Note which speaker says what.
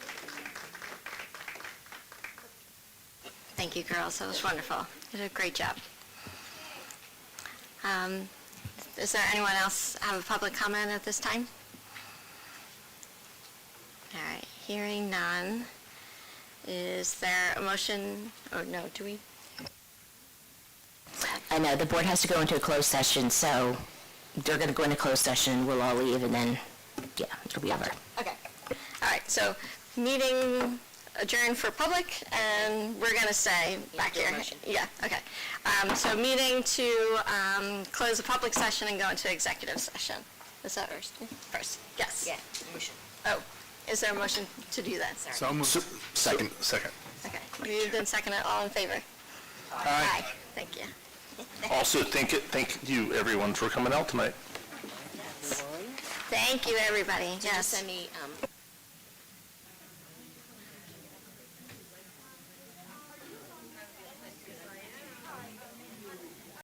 Speaker 1: Thank you, girls. That was wonderful. You did a great job. Um, Does there anyone else have a public comment at this time? All right, hearing none. Is there a motion, or no, do we?
Speaker 2: I know, the board has to go into a closed session, so they're going to go into closed session, we'll all leave, and then, yeah, it'll be over.
Speaker 1: Okay. All right, so meeting adjourned for public, and we're going to say back here. Yeah, okay. Um, So meeting to um, close the public session and go into executive session. Is that first? First, yes.
Speaker 2: Yeah,
Speaker 1: Oh, is there a motion to do that? Sorry.
Speaker 3: So moved. Second. Second.
Speaker 1: Okay, moved and seconded, all in favor? Aye. Thank you.
Speaker 3: Also, thank, it- thank you, everyone, for coming out tonight.
Speaker 1: Thank you, everybody,
Speaker 2: Just
Speaker 1: yes.
Speaker 2: send me, um,